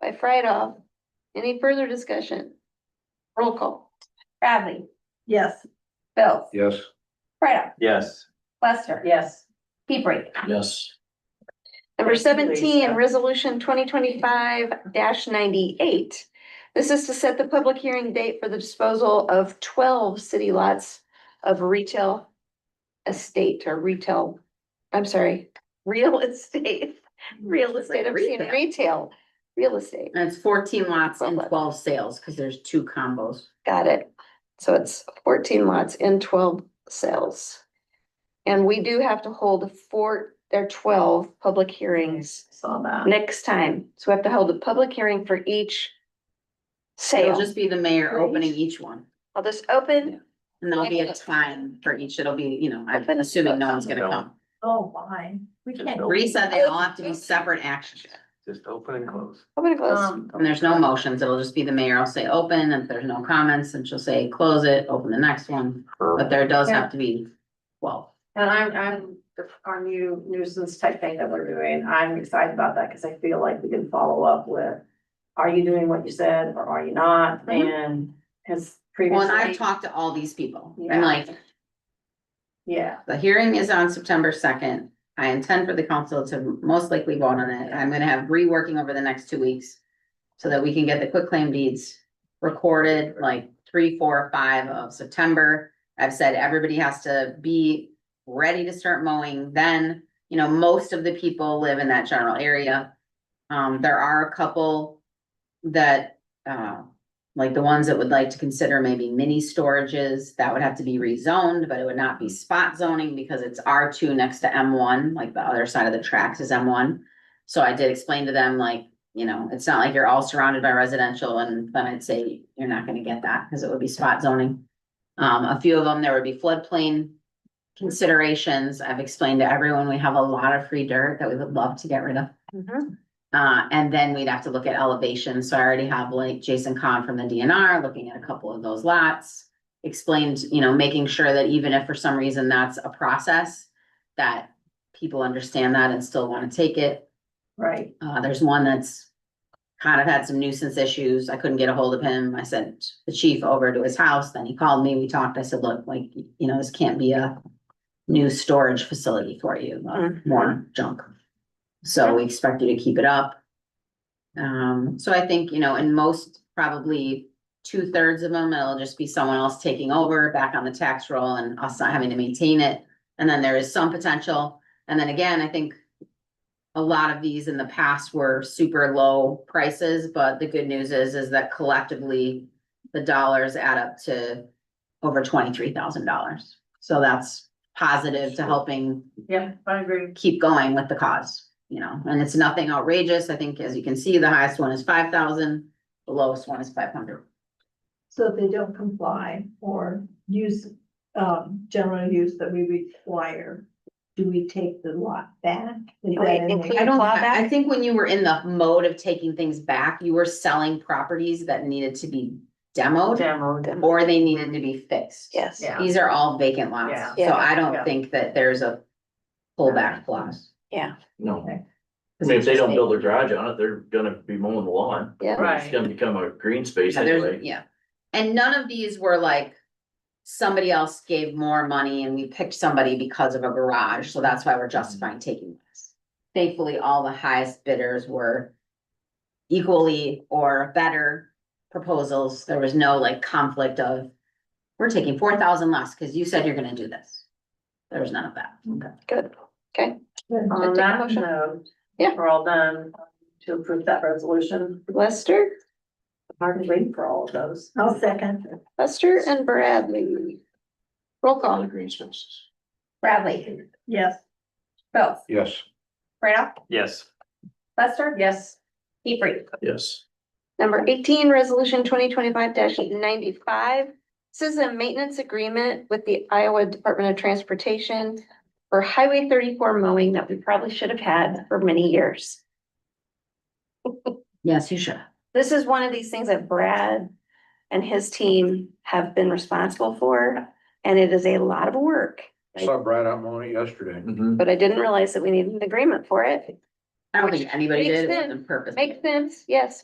by Friedhoff. Any further discussion? Roll call. Bradley, Yes. Bills, Yes. Freda, Yes. Lester, Yes. Hebrink, Yes. Number Thank you, seventeen, Lisa. resolution twenty twenty-five ninety-eight. This is to set the public hearing date for the disposal of twelve city lots of retail estate or retail, I'm sorry, real estate, real estate, I'm saying Retail. retail, real estate. And it's fourteen lots and Well, but- twelve sales, because there's two combos. Got it. So it's fourteen lots in twelve cells. And we do have to hold four, there are twelve public hearings Saw that. next time. So we have to hold a public hearing for each It'll sale. just be the mayor opening each one, I'll just open, and there'll be a time for each, it'll be, you know, I'm Open the assuming no one's gonna door. come. Oh, why? We Just can't. open. Bree said they all have to be separate actions, Just open and close. I'm gonna close. Um, and there's no motions, it'll just be the mayor, I'll say open, and if there's no comments, and she'll say close it, open the next one, but there does have to be, well, And I'm, I'm, our new nuisance type thing that we're doing, I'm excited about that because I feel like we can follow up with. Are you doing what you said or are you not? Mhm. And has well, and I've previously, talked to all these people, Yeah. I'm like, yeah, The hearing is on September second. I intend for the council to most likely vote on it. I'm gonna have reworking over the next two weeks. So that we can get the quick claim deeds recorded like three, four, five of September. I've said everybody has to be ready to start mowing then. You know, most of the people live in that general area. Um, there are a couple that, uh, like the ones that would like to consider maybe mini storages, that would have to be rezoned, but it would not be spot zoning because it's R two next to M one, like the other side of the tracks is M one. So I did explain to them like, you know, it's not like you're all surrounded by residential and then I'd say you're not gonna get that because it would be spot zoning. Um, a few of them, there would be floodplain considerations. I've explained to everyone, we have a lot of free dirt that we would love to get rid of. Mhm. Uh, and then we'd have to look at elevation, so I already have like Jason Kahn from the DNR looking at a couple of those lots. Explained, you know, making sure that even if for some reason that's a process, that people understand that and still wanna take it. right. Uh, there's one that's kind of had some nuisance issues. I couldn't get a hold of him. I sent the chief over to his house, then he called me, we talked. I said, look, like, you know, this can't be a new storage facility for you, uh, Mhm. more junk. So we expect you to keep it up. Um, so I think, you know, in most, probably two thirds of them, it'll just be someone else taking over back on the tax roll and us not having to maintain it. And then there is some potential. And then again, I think a lot of these in the past were super low prices, but the good news is, is that collectively the dollars add up to over twenty-three thousand dollars. So that's positive to helping Yeah, I agree. keep going with the cause, you know, and it's nothing outrageous. I think, as you can see, the highest one is five thousand, the lowest one is five hundred. So if they don't comply or use, um, general use that we require, do we take the lot back? Is that Wait, in there? include- I don't, Clawback? I I think when you were in the mode of taking things back, you were selling properties that needed to be demoed Demoed. or they needed to be fixed. Yes. mm-hmm. Yeah. These are all vacant Yeah. lots, so Yeah. I Yeah. don't think that there's a pullback clause. No. Okay. I mean, if they don't build a garage on it, they're gonna be mowing the lawn. Yeah, It's Right. gonna become a green space Yeah, there's- anyway. Yeah, and none of these were like, somebody else gave more money and we picked somebody because of a garage, so that's why we're justifying Mm-hmm. taking this. Thankfully, all the highest bidders were equally or better proposals, there was no like conflict of, we're taking four thousand less, cause you said you're gonna do this. There was none of that. Mm-hmm. good. On Take a that motion. note. Yeah. We're all done to approve that resolution. Lester, Hard to wait for all of those. I'll second. Lester and Bradley. Roll All the call. green spaces. Bradley, Yes. Bills, Yes. Freda, Yes. Lester, Yes. Hebrink, Yes. Number eighteen, resolution twenty twenty-five ninety-five. This is a maintenance agreement with the Iowa Department of Transportation for Highway thirty-four mowing that we probably should have had for many years. Yes, you should. This is one of these things that Brad and his team have been responsible for, and it is a lot of work. I Saw Brad out mowing it yesterday. Mhm. But I didn't realize that we needed an agreement for it. I don't think anybody Makes did, it sense. on purpose. Makes sense, yes.